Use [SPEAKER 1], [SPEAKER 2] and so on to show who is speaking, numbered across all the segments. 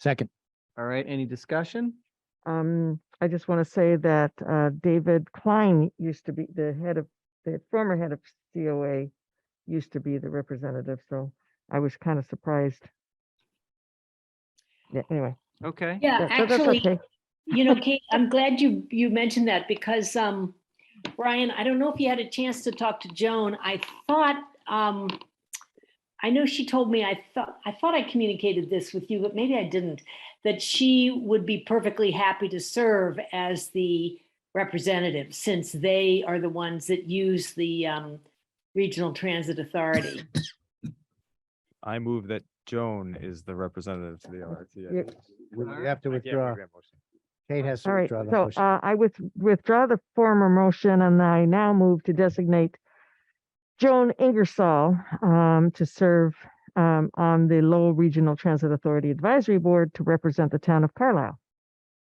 [SPEAKER 1] Second,
[SPEAKER 2] All right, any discussion?
[SPEAKER 3] Um, I just want to say that uh, David Klein used to be the head of, the former head of COA used to be the representative, so I was kind of surprised. Yeah, anyway.
[SPEAKER 2] Okay.
[SPEAKER 4] Yeah,
[SPEAKER 3] that- that- that's
[SPEAKER 4] Uh, actually,
[SPEAKER 3] okay.
[SPEAKER 4] you know, Kate, I'm glad you, you mentioned that because, um, Brian, I don't know if you had a chance to talk to Joan. I thought, um, I know she told me, I thought, I thought I communicated this with you, but maybe I didn't, that she would be perfectly happy to serve as the representative since they are the ones that use the, um, Regional Transit Authority.
[SPEAKER 5] I move that Joan is the representative to the
[SPEAKER 3] Yeah.
[SPEAKER 5] LRTA.
[SPEAKER 1] we
[SPEAKER 2] All
[SPEAKER 1] you
[SPEAKER 2] right,
[SPEAKER 1] have to
[SPEAKER 5] I can't make
[SPEAKER 1] withdraw.
[SPEAKER 5] that motion.
[SPEAKER 1] Kate has to
[SPEAKER 3] All right,
[SPEAKER 1] withdraw the
[SPEAKER 3] so
[SPEAKER 1] motion.
[SPEAKER 3] uh, I with- withdraw the former motion and I now move to designate Joan Ingersoll um, to serve um, on the Lowell Regional Transit Authority Advisory Board to represent the town of Carlisle.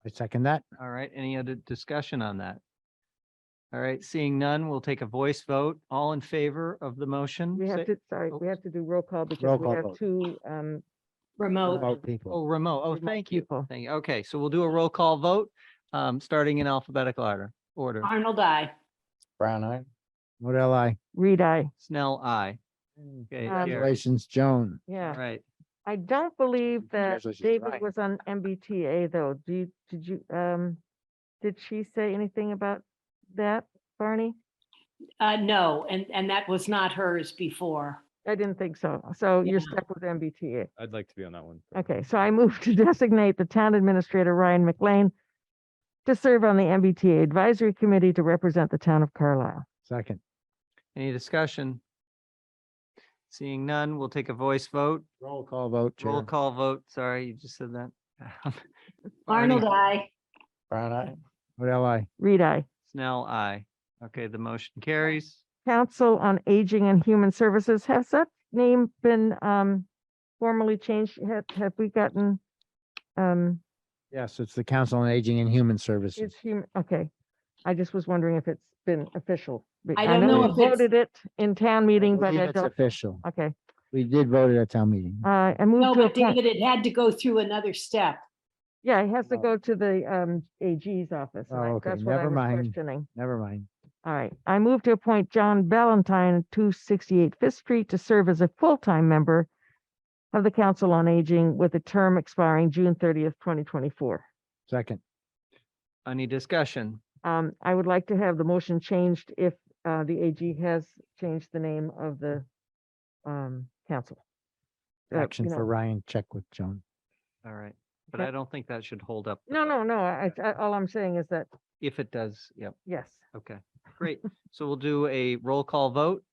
[SPEAKER 1] I second that.
[SPEAKER 2] All right, any other discussion on that? All right, seeing none, we'll take a voice vote. All in favor of the motion?
[SPEAKER 3] We
[SPEAKER 2] say-
[SPEAKER 3] have to, sorry,
[SPEAKER 2] oh.
[SPEAKER 3] we have to do roll call because
[SPEAKER 1] Roll
[SPEAKER 3] we
[SPEAKER 1] call
[SPEAKER 3] have
[SPEAKER 1] vote.
[SPEAKER 3] two um,
[SPEAKER 4] Remote,
[SPEAKER 1] Vote people.
[SPEAKER 2] Oh, remote. Oh,
[SPEAKER 3] remote
[SPEAKER 2] thank you.
[SPEAKER 3] people.
[SPEAKER 2] Thank you. Okay, so we'll do a roll call vote, um, starting in alphabetical order, order.
[SPEAKER 4] Arnold, I.
[SPEAKER 6] Brown eye.
[SPEAKER 1] What L I?
[SPEAKER 3] Reed, I,
[SPEAKER 2] Snell, I. Okay,
[SPEAKER 3] Um,
[SPEAKER 2] carried.
[SPEAKER 1] Congratulations, Joan.
[SPEAKER 2] All
[SPEAKER 3] yeah.
[SPEAKER 2] right.
[SPEAKER 3] I don't believe that
[SPEAKER 6] Congratulations,
[SPEAKER 3] David
[SPEAKER 6] Ryan.
[SPEAKER 3] was on MBTA though. Do you, did you, um, did she say anything about that, Barney?
[SPEAKER 4] Uh, no, and, and that was not hers before.
[SPEAKER 3] I didn't think so. So
[SPEAKER 4] Yeah.
[SPEAKER 3] you're stuck with MBTA.
[SPEAKER 5] I'd like to be on that one.
[SPEAKER 3] Okay, so I move to designate the town administrator Ryan McLean to serve on the MBTA Advisory Committee to represent the town of Carlisle.
[SPEAKER 1] Second,
[SPEAKER 2] Any discussion? Seeing none, we'll take a voice vote,
[SPEAKER 1] roll call vote,
[SPEAKER 2] roll
[SPEAKER 1] Chair.
[SPEAKER 2] call vote. Sorry, you just said that. Barney,
[SPEAKER 4] Arnold, I.
[SPEAKER 6] Brown eye.
[SPEAKER 1] What L I?
[SPEAKER 3] Reed, I.
[SPEAKER 2] Snell, I. Okay, the motion carries.
[SPEAKER 3] Council on Aging and Human Services, has that name been um formally changed? Have, have we gotten? Um,
[SPEAKER 1] Yes, it's the Council on Aging and Human Services.
[SPEAKER 3] it's human, okay. I just was wondering if it's been official. be-
[SPEAKER 4] I don't know
[SPEAKER 3] we
[SPEAKER 4] if it's-
[SPEAKER 3] Voted it in town meeting, but
[SPEAKER 1] believe
[SPEAKER 3] I
[SPEAKER 1] it's
[SPEAKER 3] don't,
[SPEAKER 1] Official.
[SPEAKER 3] okay.
[SPEAKER 1] We did vote at a town meeting.
[SPEAKER 3] Uh, I
[SPEAKER 4] No,
[SPEAKER 3] moved to
[SPEAKER 4] but
[SPEAKER 3] appoint,
[SPEAKER 4] David, it had to go through another step.
[SPEAKER 3] yeah, it has to
[SPEAKER 1] Oh.
[SPEAKER 3] go to the um AG's office. and
[SPEAKER 1] Oh,
[SPEAKER 3] I-
[SPEAKER 1] okay,
[SPEAKER 3] That's what I
[SPEAKER 1] never
[SPEAKER 3] was
[SPEAKER 1] mind.
[SPEAKER 3] questioning.
[SPEAKER 1] Never mind.
[SPEAKER 3] All right, I move to appoint John Valentine, two sixty-eight Fifth Street, to serve as a full-time member of the Council on Aging with a term expiring June thirtieth, twenty twenty-four.
[SPEAKER 1] Second,
[SPEAKER 2] Any discussion?
[SPEAKER 3] Um, I would like to have the motion changed if uh, the AG has changed the name of the um, council. Uh,
[SPEAKER 1] action
[SPEAKER 3] you
[SPEAKER 1] for
[SPEAKER 3] know,
[SPEAKER 1] Ryan, check with Joan.
[SPEAKER 2] All right, but
[SPEAKER 3] Okay.
[SPEAKER 2] I don't think that should hold up. the
[SPEAKER 3] No,
[SPEAKER 2] vote.
[SPEAKER 3] no, no, I, I, all I'm saying is that,
[SPEAKER 2] If it does, yep,
[SPEAKER 3] yes,
[SPEAKER 2] okay, great. So we'll do a roll call vote.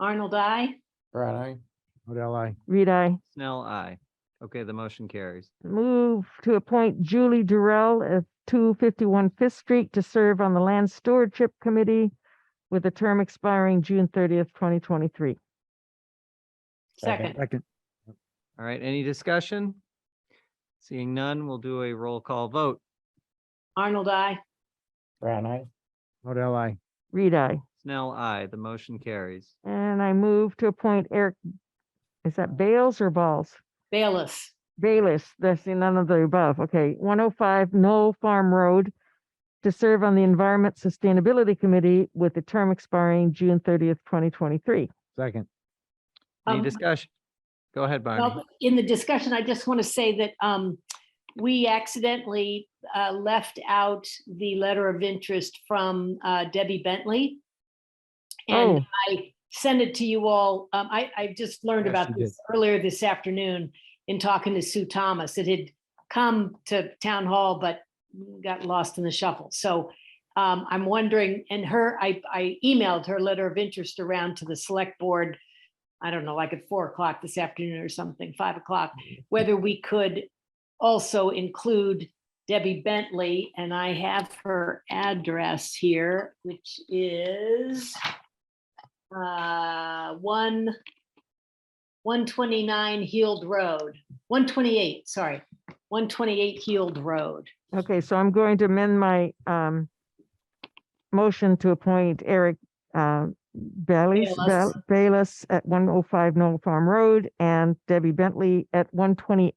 [SPEAKER 4] Arnold, I.
[SPEAKER 6] Brown eye.
[SPEAKER 1] What L I?
[SPEAKER 3] read I.
[SPEAKER 2] Snell, I. Okay, the motion carries.
[SPEAKER 3] Move to appoint Julie Durrell of 251 Fifth Street to serve on the Land Stewardship Committee with a term expiring June 30th, 2023.
[SPEAKER 4] Second,
[SPEAKER 1] Second,
[SPEAKER 2] All right, any discussion? Seeing none, we'll do a roll call vote.
[SPEAKER 4] Arnold, I.
[SPEAKER 6] Brown eye.
[SPEAKER 1] what L I?
[SPEAKER 3] Reed, I.
[SPEAKER 2] Snell, I. The motion carries.
[SPEAKER 3] And I move to appoint Eric, is that Bales or Balls?
[SPEAKER 4] Bayless.
[SPEAKER 3] Bayless, that's the- none of the above. Okay, 105 Knoll Farm Road to serve on the Environment Sustainability Committee with a term expiring June 30th, 2023.
[SPEAKER 1] Second,
[SPEAKER 2] Any
[SPEAKER 4] Um,
[SPEAKER 2] discussion? Go ahead, Barney.
[SPEAKER 4] Well, in the discussion, I just want to say that um, we accidentally uh, left out the letter of interest from uh, Debbie Bentley.
[SPEAKER 3] Oh.
[SPEAKER 4] And I sent it to you all. Um, I, I just learned
[SPEAKER 1] Yes,
[SPEAKER 4] about
[SPEAKER 1] you did.
[SPEAKER 4] this earlier this afternoon in talking to Sue Thomas. It had come to town hall, but got lost in the shuffle. So um, I'm wondering, and her, I, I emailed her letter of interest around to the select board I don't know, like at four o'clock this afternoon or something, five o'clock,
[SPEAKER 1] Mm-hmm.
[SPEAKER 4] whether we could also include Debbie Bentley, and I have her address here, which is uh, one, one twenty-nine Heald Road, one twenty-eight, sorry, one twenty-eight Heald Road.
[SPEAKER 3] Okay, so I'm going to amend my um motion to appoint Eric uh Bailey
[SPEAKER 4] Bayless.
[SPEAKER 3] Bayless at one oh five Knoll Farm Road and Debbie Bentley at one twenty